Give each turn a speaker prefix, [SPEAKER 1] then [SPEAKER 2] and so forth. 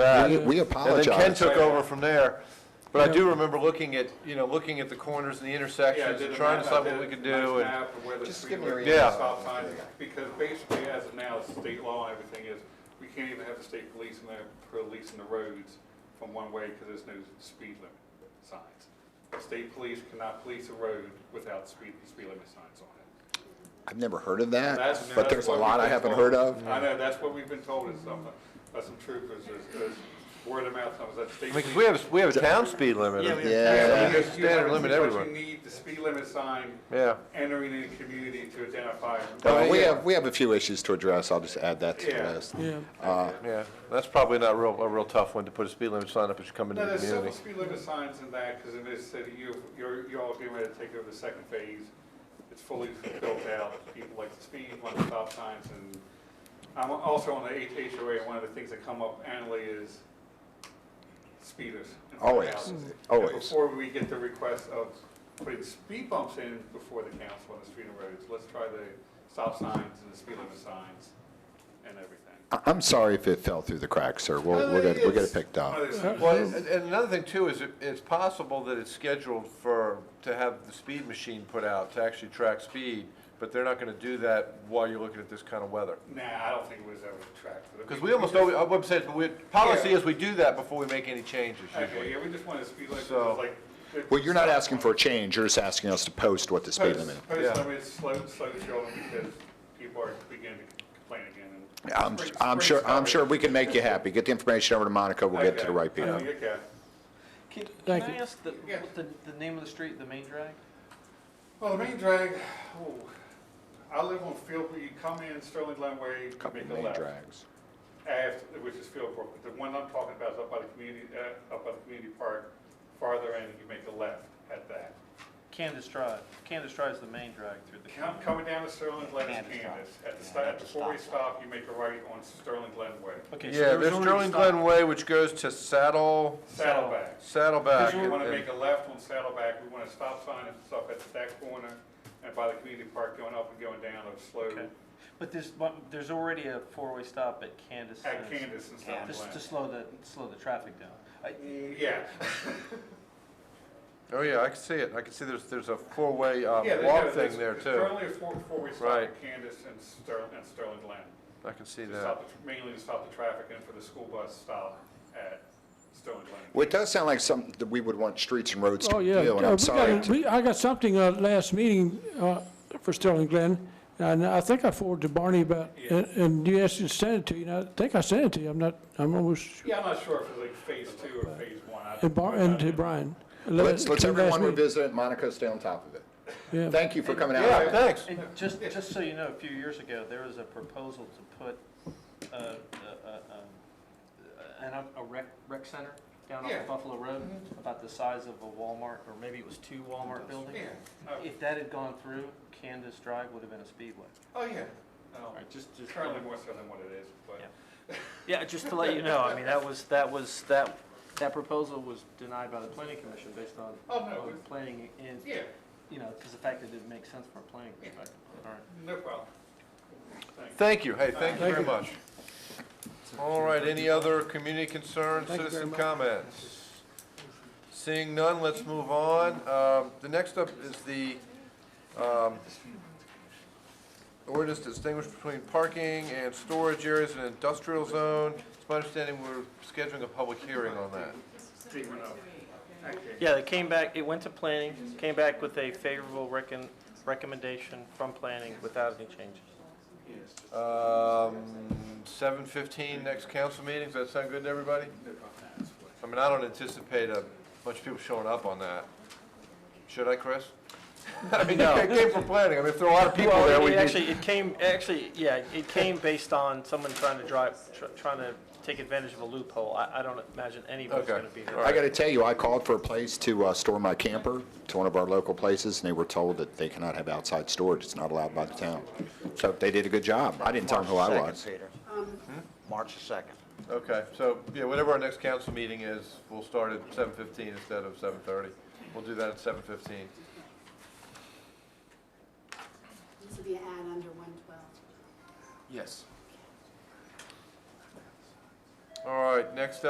[SPEAKER 1] that.
[SPEAKER 2] We- we
[SPEAKER 1] And then Ken
[SPEAKER 2] apologize.
[SPEAKER 1] took over from there. But I do remember looking at, you know, looking at the corners and the
[SPEAKER 3] Yeah, I
[SPEAKER 1] intersections
[SPEAKER 3] did
[SPEAKER 1] and
[SPEAKER 3] a
[SPEAKER 1] trying to
[SPEAKER 3] map, I
[SPEAKER 1] decide what
[SPEAKER 3] did
[SPEAKER 1] we
[SPEAKER 3] a
[SPEAKER 1] could
[SPEAKER 3] nice
[SPEAKER 1] do. and-
[SPEAKER 3] map of where the
[SPEAKER 4] Just
[SPEAKER 3] street
[SPEAKER 4] give me a
[SPEAKER 3] was,
[SPEAKER 1] Yeah.
[SPEAKER 3] stop sign, Because basically, as of now, state law and everything is, we can't even have the state police in there policing the roads from one way because there's no speed limit signs. The State police cannot police a road without speed, speed limit signs on it.
[SPEAKER 2] I've never heard of that,
[SPEAKER 3] That's-
[SPEAKER 2] Uh, but
[SPEAKER 3] that's
[SPEAKER 2] there's a
[SPEAKER 3] what
[SPEAKER 2] lot
[SPEAKER 3] we've
[SPEAKER 2] I
[SPEAKER 3] been
[SPEAKER 2] haven't
[SPEAKER 3] told.
[SPEAKER 2] heard of.
[SPEAKER 3] I know, that's what we've been told is something, by some troopers, is, is word of mouth comes that state.
[SPEAKER 1] I mean, 'cause
[SPEAKER 3] police-
[SPEAKER 1] we have, we have a town speed limit.
[SPEAKER 3] Yeah, we
[SPEAKER 2] Yeah.
[SPEAKER 3] have- yeah,
[SPEAKER 1] There's
[SPEAKER 3] because you
[SPEAKER 1] standard
[SPEAKER 3] have-
[SPEAKER 1] limit
[SPEAKER 3] but
[SPEAKER 1] everywhere.
[SPEAKER 3] You need the speed limit sign
[SPEAKER 1] Yeah.
[SPEAKER 3] entering the community to identify.
[SPEAKER 2] Uh, We
[SPEAKER 1] yeah.
[SPEAKER 2] have, we have a few issues to address, I'll just add that to the
[SPEAKER 3] Yeah.
[SPEAKER 2] list.
[SPEAKER 5] Yeah.
[SPEAKER 1] Yeah, that's probably not real, a real tough one to put a speed limit sign up as you come into
[SPEAKER 3] No,
[SPEAKER 1] the
[SPEAKER 3] there's several
[SPEAKER 1] community.
[SPEAKER 3] speed limit signs in that, because in this city, you, you're, you're all getting ready to take over the second phase. It's fully built out, people like to speed, want the stop signs, and I'm also on the H- HOA, and one of the things that come up annually is speeders. in front of
[SPEAKER 2] Always,
[SPEAKER 3] houses. And
[SPEAKER 2] always.
[SPEAKER 3] Before we get the request of putting speed bumps in before the council on the street and roads, let's try the stop signs and the speed limit signs and everything.
[SPEAKER 2] I- I'm sorry if it fell through the cracks, sir, we'll, we'll get, we'll get it picked up.
[SPEAKER 3] One of those-
[SPEAKER 1] Well, and and another thing too is it- it's possible that it's scheduled for, to have the speed machine put out to actually track speed, but they're not going to do that while you're looking at this kind of weather.
[SPEAKER 3] Nah, I don't think it was ever tracked. for the-
[SPEAKER 1] Because we almost always, I would say, we, policy is we do that before we make any changes
[SPEAKER 3] Okay,
[SPEAKER 1] usually.
[SPEAKER 3] yeah, we just wanted to speed limit,
[SPEAKER 1] So-
[SPEAKER 3] like. the-
[SPEAKER 2] Well, you're not asking for a change, you're just asking us to post what the speed limit.
[SPEAKER 3] Post- Post
[SPEAKER 1] Yeah.
[SPEAKER 3] limit, slow, slow children, because people are beginning to complain again. and-
[SPEAKER 2] I'm,
[SPEAKER 3] Spring-
[SPEAKER 2] I'm
[SPEAKER 3] spring's
[SPEAKER 2] sure, I'm
[SPEAKER 3] coming.
[SPEAKER 2] sure we can make you happy, get the information over to Monica, we'll get to the
[SPEAKER 3] Okay.
[SPEAKER 2] right people.
[SPEAKER 3] Oh, Okay.
[SPEAKER 4] Can, can
[SPEAKER 5] Thank
[SPEAKER 4] I
[SPEAKER 5] you.
[SPEAKER 4] ask the,
[SPEAKER 3] Yeah.
[SPEAKER 4] what the, the name of the street, the main drag?
[SPEAKER 3] Well, the main drag, oh, I live on Field, you come in Sterling Glenway,
[SPEAKER 2] Couple
[SPEAKER 3] make a
[SPEAKER 2] main
[SPEAKER 3] left.
[SPEAKER 2] drags.
[SPEAKER 3] After, which is Fieldbrook, but the one I'm talking about is up by the community, uh, up by the community park, farther in, you make a left at that.
[SPEAKER 4] Candace Drive. Candace Drive is the main drag through the.
[SPEAKER 3] Com- Coming down to Sterling Glen is
[SPEAKER 4] Candace Drive.
[SPEAKER 3] Candace. At the stop, at the four-way stop, you make a right on Sterling Glen Way.
[SPEAKER 4] Okay, so
[SPEAKER 1] Yeah,
[SPEAKER 4] there was
[SPEAKER 1] there's
[SPEAKER 4] already a
[SPEAKER 1] Sterling
[SPEAKER 4] stop.
[SPEAKER 1] Glen Way, which goes to Saddle,
[SPEAKER 3] Saddleback.
[SPEAKER 1] Saddleback.
[SPEAKER 3] We
[SPEAKER 1] and-
[SPEAKER 3] want to
[SPEAKER 1] and-
[SPEAKER 3] make a left on Saddleback, we want to stop sign and stuff at that corner and by the community park going up and going down of slow
[SPEAKER 4] Okay. But there's, one- there's already a four-way stop at Candace.
[SPEAKER 3] at
[SPEAKER 4] and-
[SPEAKER 3] Candace and Sterling
[SPEAKER 4] Just to
[SPEAKER 3] Glen.
[SPEAKER 4] slow the, slow the traffic down. I-
[SPEAKER 3] Mm, Yeah,
[SPEAKER 1] Oh, yeah, I can see it. I can see there's, there's a four-way um,
[SPEAKER 3] yeah. they
[SPEAKER 1] walk
[SPEAKER 3] got-
[SPEAKER 1] thing there
[SPEAKER 3] there's
[SPEAKER 1] too.
[SPEAKER 3] Currently a four, four-way stop
[SPEAKER 1] Right.
[SPEAKER 3] at Candace and Sterling, and Sterling Glen.
[SPEAKER 1] I can see
[SPEAKER 3] To
[SPEAKER 1] that.
[SPEAKER 3] stop, the- mainly to stop the traffic and for the school bus stop at Sterling Glen.
[SPEAKER 2] Well, it does sound like something that we would want streets and roads
[SPEAKER 5] Oh,
[SPEAKER 2] to
[SPEAKER 5] yeah.
[SPEAKER 2] do, and
[SPEAKER 5] Uh, we
[SPEAKER 2] I'm sorry.
[SPEAKER 5] got a-
[SPEAKER 2] to-
[SPEAKER 5] we- I got something uh, last meeting uh, for Sterling Glen, and I think I forwarded to Barney about, and- and you asked me to send it to you, and I think I sent it to you. I'm not, I'm almost,
[SPEAKER 3] Yeah, I'm not sure if it's like phase two or phase one. I-
[SPEAKER 5] and Bar- and to Brian.
[SPEAKER 2] Let's, let's
[SPEAKER 5] Last
[SPEAKER 2] everyone
[SPEAKER 5] week.
[SPEAKER 2] revisit it, Monica, stay on top of it.
[SPEAKER 5] Yeah.
[SPEAKER 2] Thank you for coming out.
[SPEAKER 1] Yeah, thanks.
[SPEAKER 4] And just, just so you know, a few years ago, there was a proposal to put, uh, uh, uh, um, an, a rec, rec center down off
[SPEAKER 3] Yeah. Mm-hmm.
[SPEAKER 4] of Buffalo Road, about the size of a Walmart, or maybe it was two Walmart buildings.
[SPEAKER 3] Yeah, oh,
[SPEAKER 4] If that had gone through, Candace Drive would have been a speedway.
[SPEAKER 3] oh, yeah. Oh,
[SPEAKER 4] All right, just, just.
[SPEAKER 3] Currently more so than what it is, but.
[SPEAKER 4] Yeah. Yeah, just to let you know, I mean, that was, that was, that, that proposal was denied by the planning commission based on,
[SPEAKER 3] Oh, no,
[SPEAKER 4] on
[SPEAKER 3] it's-
[SPEAKER 4] planning and,
[SPEAKER 3] Yeah,
[SPEAKER 4] you know, because the fact that it didn't make sense from a planning perspective. All right.
[SPEAKER 3] no problem. Thanks.
[SPEAKER 1] Thank you. Hey, thank you very much. All right, any other community concerns,
[SPEAKER 5] Thank you very
[SPEAKER 1] citizen
[SPEAKER 5] much.
[SPEAKER 1] comments? Seeing none, let's move on. Um, The next up is the um, ordinance to distinguish between parking and storage areas in an industrial zone. It's my understanding we're scheduling a public hearing on that.
[SPEAKER 4] Yeah, they came back, it went to planning, came back with a favorable recon, recommendation from planning without any changes.
[SPEAKER 1] Um, 7:15, next council meeting, does that sound good to everybody? I mean, I don't anticipate a bunch of people showing up on that. Should I, Chris? I mean, it came from planning, I mean, if there are a lot of people
[SPEAKER 6] Well,
[SPEAKER 1] there,
[SPEAKER 6] it-
[SPEAKER 1] we
[SPEAKER 6] it
[SPEAKER 1] need...
[SPEAKER 6] actually, it came, actually, yeah, it came based on someone trying to drive, tr- trying to take advantage of a loophole. I, I don't imagine anybody's
[SPEAKER 1] Okay,
[SPEAKER 6] gonna be
[SPEAKER 1] all
[SPEAKER 6] there.
[SPEAKER 2] I
[SPEAKER 1] right.
[SPEAKER 2] got to tell you, I called for a place to uh, store my camper to one of our local places, and they were told that they cannot have outside storage. It's not allowed by the town. So they did a good job. I didn't tell them who I was.
[SPEAKER 7] March the 2nd.
[SPEAKER 1] Okay, so, yeah, whatever our next council meeting is, we'll start at 7:15 instead of 7:30. We'll do that at 7:15.
[SPEAKER 8] This will be an ad under one twelve.
[SPEAKER 1] Yes. All right, next up.